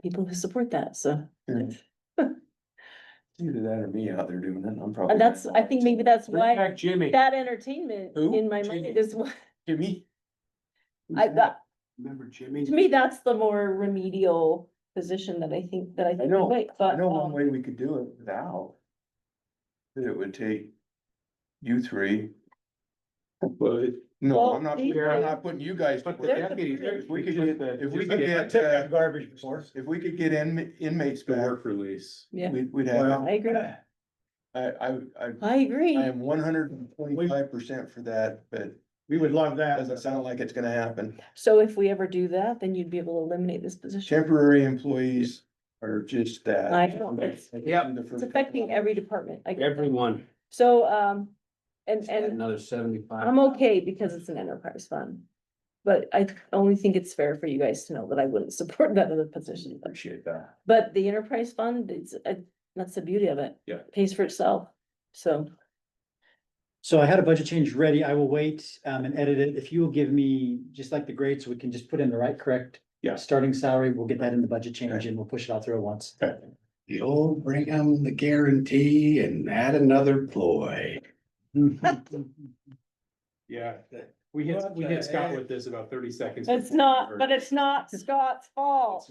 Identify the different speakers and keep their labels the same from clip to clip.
Speaker 1: people who support that, so.
Speaker 2: Yeah.
Speaker 1: And
Speaker 2: Either that or me out there doing it, I'm probably.
Speaker 1: that's, I think maybe that's
Speaker 2: Bring
Speaker 1: why
Speaker 2: back Jimmy,
Speaker 1: that entertainment
Speaker 2: Who?
Speaker 1: in my
Speaker 2: Jamie.
Speaker 1: mind is, what-
Speaker 2: Jimmy.
Speaker 1: I, that,
Speaker 2: Remember Jimmy?
Speaker 1: to me, that's the more remedial position that I think, that I think.
Speaker 2: know,
Speaker 1: Wait,
Speaker 2: I
Speaker 1: but,
Speaker 2: know one
Speaker 1: um,
Speaker 2: way we could do it without. That it would take you three. But. No,
Speaker 1: Well,
Speaker 2: I'm not,
Speaker 1: these
Speaker 2: I'm
Speaker 1: guys-
Speaker 2: not putting you guys. to
Speaker 3: But the
Speaker 2: work.
Speaker 1: There's a
Speaker 3: deputies,
Speaker 1: period.
Speaker 3: if we could get the.
Speaker 2: If we
Speaker 3: just
Speaker 2: could
Speaker 3: like-
Speaker 2: get,
Speaker 3: I took
Speaker 2: uh,
Speaker 3: that Garbage before.
Speaker 2: If we could get in, inmates
Speaker 3: The
Speaker 2: back,
Speaker 3: work release.
Speaker 1: Yeah.
Speaker 2: we'd, we'd
Speaker 3: Well,
Speaker 2: have,
Speaker 1: I agree,
Speaker 2: I, I, I,
Speaker 1: I agree.
Speaker 2: I am one hundred and twenty-five percent for that, but
Speaker 3: We would love that.
Speaker 2: doesn't sound like it's gonna happen.
Speaker 1: So if we ever do that, then you'd be able to eliminate this position.
Speaker 2: Temporary employees are just that.
Speaker 1: I know, it's-
Speaker 2: Yep.
Speaker 1: It's affecting every department. I get that.
Speaker 4: Everyone,
Speaker 1: So, um, and, and
Speaker 4: another seventy-five.
Speaker 1: I'm okay because it's an enterprise fund. But I only think it's fair for you guys to know that I wouldn't support that other position.
Speaker 2: Appreciate that.
Speaker 1: But the enterprise fund, it's, uh, that's the beauty of it.
Speaker 2: Yeah.
Speaker 1: Pays for itself, so.
Speaker 5: So I had a budget change ready. I will wait um and edit it. If you will give me, just like the grades, we can just put in the right, correct?
Speaker 2: Yeah.
Speaker 5: Starting salary, we'll get that in the budget change and we'll push it all through at once.
Speaker 2: Okay.
Speaker 6: You'll bring him the guarantee and add another ploy.
Speaker 3: Yeah, we hit, we hit Scott with this about thirty seconds.
Speaker 1: It's not, but it's not Scott's fault.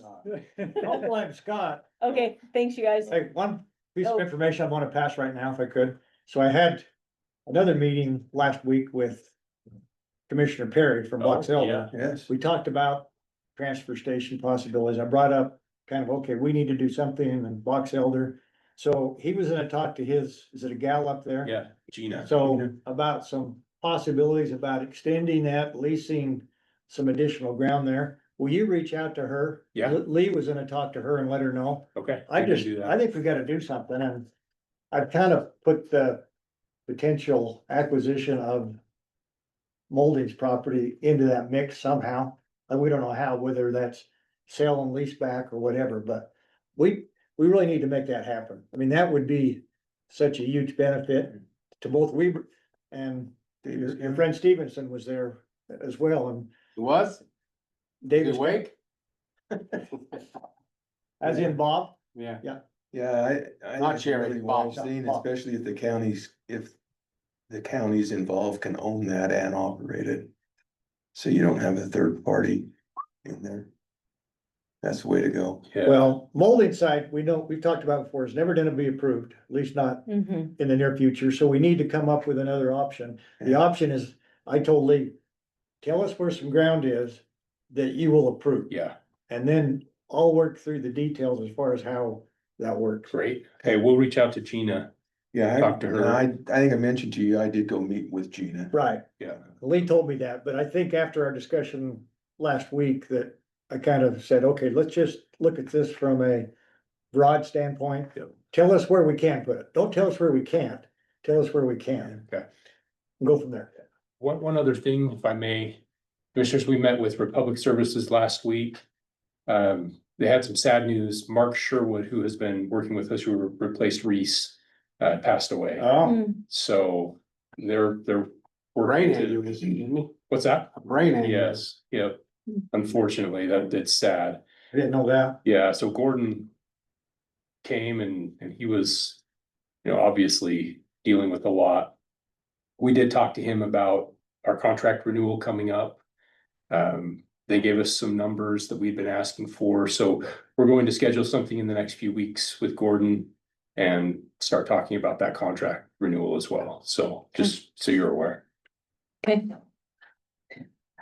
Speaker 3: Don't blame Scott.
Speaker 1: Okay, thanks you guys.
Speaker 3: Hey, one piece
Speaker 1: Oh.
Speaker 3: of information I wanna pass right now if I could. So I had another meeting last week with Commissioner Perry from Box
Speaker 4: Oh,
Speaker 3: Elder.
Speaker 4: yeah.
Speaker 2: Yes.
Speaker 3: We talked about transfer station possibilities. I brought up kind of, okay, we need to do something in Box Elder. So he was gonna talk to his, is it a gal up there?
Speaker 2: Yeah, Gina.
Speaker 3: So about some possibilities about extending that, leasing some additional ground there. Will you reach out to her?
Speaker 2: Yeah.
Speaker 3: Lee was gonna talk to her and let her know.
Speaker 2: Okay.
Speaker 3: I just,
Speaker 2: do
Speaker 3: I think we gotta do something and I've kind of put the potential acquisition of Molding's property into that mix somehow. And we don't know how, whether that's sale and lease back or whatever, but we, we really need to make that happen. I mean, that would be such a huge benefit to both Weaver and your, your friend Stevenson was there as well and
Speaker 6: Was,
Speaker 3: David,
Speaker 6: awake?
Speaker 3: as in Bob.
Speaker 6: Yeah.
Speaker 2: Yeah, I, I.
Speaker 6: Not
Speaker 2: think
Speaker 6: Sherry,
Speaker 2: really
Speaker 6: Bob,
Speaker 2: Weinstein,
Speaker 3: Bob.
Speaker 2: Especially if the counties, if the counties involved can own that and operate it. So you don't have a third party in there. That's the way to go.
Speaker 3: Well, molding site, we know, we've talked about before, is never gonna be approved, at least not
Speaker 1: Mhm.
Speaker 3: in the near future, so we need to come up with another option. The
Speaker 2: Yeah.
Speaker 3: option is, I told Lee, tell us where some ground is that you will approve.
Speaker 6: Yeah.
Speaker 3: And then I'll work through the details as far as how that works.
Speaker 6: Great. Hey, we'll reach out to Gina.
Speaker 2: Yeah, I,
Speaker 6: Talk to her.
Speaker 2: and I, I think I mentioned to you, I did go meet with Gina.
Speaker 3: Right,
Speaker 6: Yeah.
Speaker 3: Lee told me that, but I think after our discussion last week that I kind of said, okay, let's just look at this from a broad standpoint.
Speaker 6: Yep.
Speaker 3: Tell us where we can put it. Don't tell us where we can't. Tell us where we can.
Speaker 6: Okay.
Speaker 3: Go from there.
Speaker 6: One, one other thing, if I may, commissioners, we met with Republic Services last week. Um, they had some sad news. Mark Sherwood, who has been working with us, who re- replaced Reese, uh, passed away.
Speaker 3: Oh.
Speaker 1: Mm.
Speaker 6: So they're, they're. Brain What's that? Brain. Yes, yep. Unfortunately, that, it's sad.
Speaker 3: I didn't know that.
Speaker 6: Yeah, so Gordon came and, and he was, you know, obviously dealing with a lot. We did talk to him about our contract renewal coming up. Um, they gave us some numbers that we'd been asking for, so we're going to schedule something in the next few weeks with Gordon and start talking about that contract renewal as well, so
Speaker 1: Hmm.
Speaker 6: just so you're aware.
Speaker 1: Okay.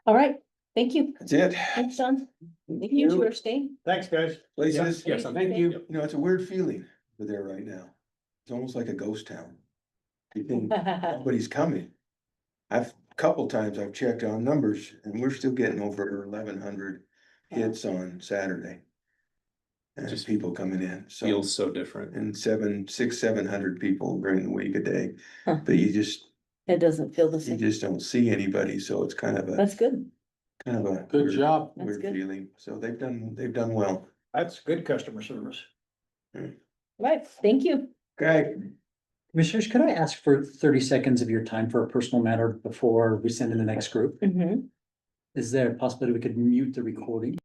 Speaker 1: All right, thank you.
Speaker 2: That's it.
Speaker 1: Thanks, Sean. Thank you for staying.
Speaker 3: Thanks, guys.
Speaker 2: Places, you
Speaker 1: Yes, thank you.
Speaker 2: know, it's a weird feeling over there right now. It's almost like a ghost town. You think nobody's coming. I've, a couple times I've checked on numbers and we're still getting over eleven hundred hits on Saturday. And
Speaker 6: Just
Speaker 2: people coming in, so,
Speaker 6: Feels so different.
Speaker 2: and seven, six, seven hundred people during the week a day.
Speaker 1: Huh.
Speaker 2: But you just,
Speaker 1: It doesn't feel the
Speaker 2: you
Speaker 1: same.
Speaker 2: just don't see anybody, so it's kind of a,
Speaker 1: That's good.
Speaker 2: kind of a.
Speaker 4: Good
Speaker 2: weird-
Speaker 4: job.
Speaker 1: That's
Speaker 2: Weird
Speaker 1: good.
Speaker 2: feeling, so they've done, they've done well.
Speaker 3: That's good customer service.
Speaker 1: Right, thank you.
Speaker 2: Okay.
Speaker 5: Commissioners, could I ask for thirty seconds of your time for a personal matter before we send in the next group?
Speaker 1: Mhm.
Speaker 5: Is there a possibility we could mute the recording?